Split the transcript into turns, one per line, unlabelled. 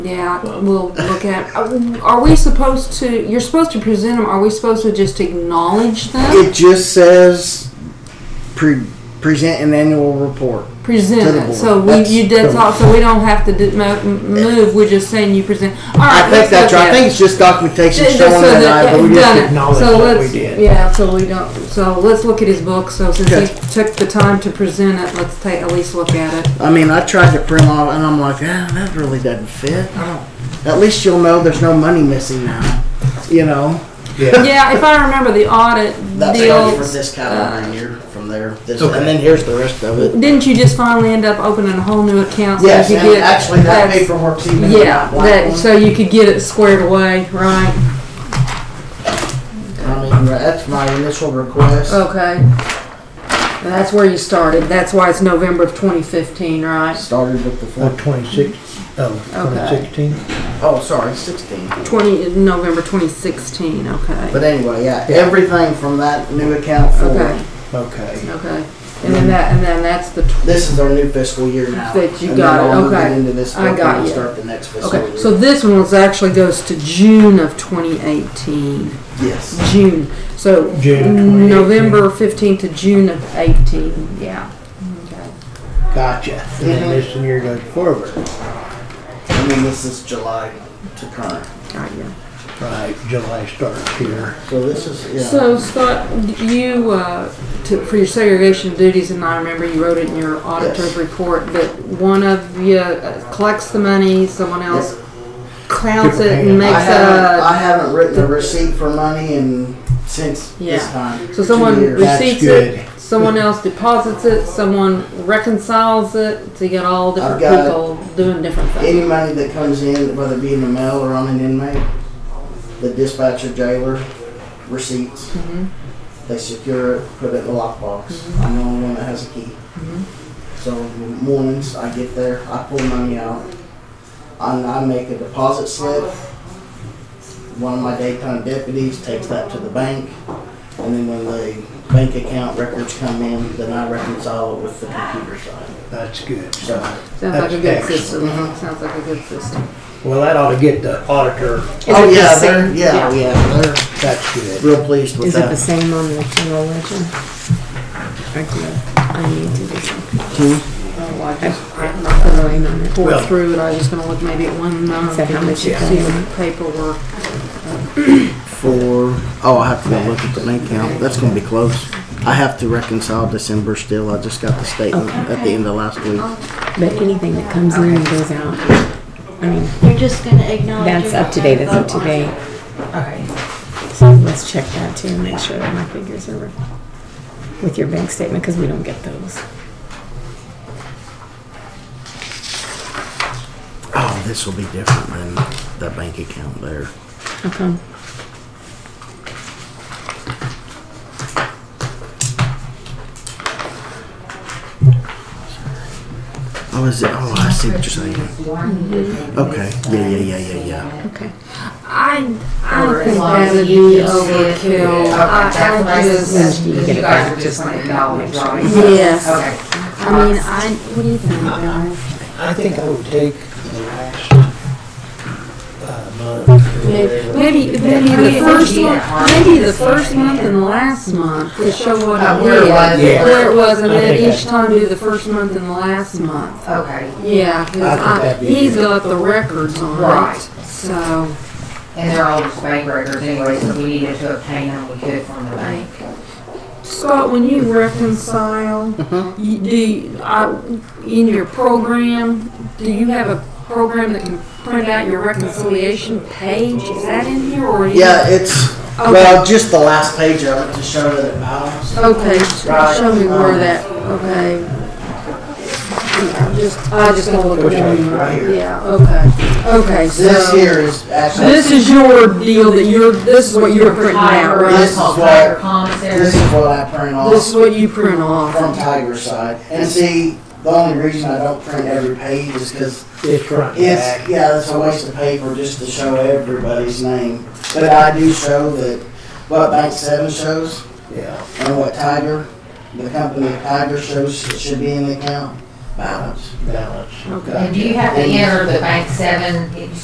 Yeah, we'll look at. uh, Are we supposed to? You're supposed to present them. Are we supposed to just acknowledge them?
It just says pre- present an annual report.
Present
to the
it.
board.
So we,
That's-
you did all. So we don't have to do, mo- move. We're just saying you present. All right.
I think
let's
that's
look
right. I
at
think
it.
it's just documentation
Just so
showing that, I, but we
it's
just
done it.
acknowledge
so
that we
let's,
did.
Yeah, so we don't, so let's look at his book, so since
Okay.
he took the time to present it, let's take, at least look at it.
I mean, I tried to print off, and I'm like, ah, that really doesn't fit. I don't. At least you'll know there's no money missing now. You know.
Yeah.
Yeah, if I remember the audit
That's
deal,
only for this calendar year. From there, this, and then here's the rest of it.
didn't you just finally end up opening a whole new account? so
Yes,
you
and
could get-
actually that
that's-
paperwork's even in
Yeah,
black
that,
one.
so you could get it squared away, right?
I mean, that's my initial request.
Okay. And That's where you started, that's why it's November of twenty fifteen, right?
Started with the
Or
four.
26, oh,
Okay.
2016.
Oh, sorry, sixteen.
Twenty, November twenty sixteen, okay,
But anyway, yeah, everything from that new account
okay.
forward. Okay.
Okay, and then that, and then that's the, tw-
This is our new fiscal year now.
That you
and
got
then
it,
I'll move
okay.
Into this
I
book
got
and
you.
I'll start the next fiscal
okay,
year.
so this one was actually goes to June of twenty eighteen,
yes,
June, so.
June 2018.
November fifteenth to June of eighteen, yeah. Okay.
Gotcha. And
Mm-hmm.
then this year goes forward.
I mean this is July to current.
Got you.
Right, July starts here.
So this is yeah.
So Scott, d- you, uh, to, for your segregation duties, and I remember you wrote it in your auditor's
Yes.
report, that one of you uh, collects the money, someone else counts it and
Different
makes
I haven't,
a.
I haven't written a receipt for money in since this
Yeah.
time.
So
Two
someone
years.
That's
receipts
good.
it, someone else deposits it, someone reconciles it, so you got all different
I've got-
people doing different things.
Any money that comes in, whether it be in the mail or on an inmate, the dispatcher, jailer, receipts,
Mhm.
Mm-hmm.
they secure it, put it in the lockbox. I'm the only one that has a key.
Mm-hmm.
So mornings, I get there, I pull money out, I, I make a deposit slip. One of my daytime deputies takes that to the bank, and then when the bank account records come in, then I reconcile it with the computer side.
That's good.
So,
Sounds like a
That's
good
excellent.
system,
Mhm.
sounds like a good system.
Well, that ought to get the auditor.
oh
it the
yeah, they're,
same-
yeah,
yeah.
yeah, they're
That's good.
real pleased with
Is it the
that.
same on the general ledger? Or do I need to do something?
Oh, I just, I'm not
Oh,
gonna
wait a minute.
pour
Hmm? Well-
through it, I was just gonna look maybe at one number.
So how much
See
you
the paperwork.
For, oh, I have to go look at the bank account, that's gonna be close. I have to reconcile December still, I just got the statement at the end of last week.
But anything that comes in and goes out, I mean,
You're just gonna acknowledge.
that's
you're
up to
not gonna
date, that's up
vote
to
on
date.
it. Okay.
So let's check that too and make sure that my figures are with your bank statement, because we don't get those.
Oh, this will be different than that bank account there.
How come?
Oh, is it, oh, I see what you're saying.
Mm-hmm.
Okay, yeah, yeah, yeah, yeah, yeah.
Okay.
I, I
Or
think
as long
that'd
as
be
you can see it.
overkill.
Okay,
I,
that's what
I
I
just,
said,
You
you
get it
guys
back,
are just
just
gonna
like
acknowledge,
make sure.
right?
Yes.
Okay.
I mean, I, what do you think, Bill?
I think I would take the last uh, month.
Maybe, maybe the first one, maybe the first month and last month to show what it
Where it was.
is.
Yeah.
Where it was, and
I
then
think
each time do the first month and last month.
Okay,
Yeah, 'cause
I think
I-
that'd be
he's
good.
got the records on
Right.
it, so.
and they're all just bank records anyway, so we needed to obtain them, we could from the bank.
Scott, when you reconcile,
Mm-hmm.
you, do you, I, in your program, do you have a program that can print out your reconciliation page? Is that in here, or? you-
Yeah, it's,
Okay.
well, just the last page of it to show that it balanced.
Okay, sh-
Right. Um,
show me where that, okay. I'm Just, I just gonna look at it.
Right here.
Yeah, okay, okay, so.
This here is actually.
This is your deal that you're, this is what you're printing out,
This
right?
is
Called
what-
Tiger Commissary.
This is what I print
This
off
is what you print off.
from Tiger's side. And see, the only reason I don't print every page is because
It's front and
it's,
back.
yeah, it's a waste of paper just to show everybody's name. But I do show that what Bank Seven shows
Yeah.
and what Tiger, the company Tiger shows should be in the account. balance.
balance.
Okay.
And do you have to enter the bank seven,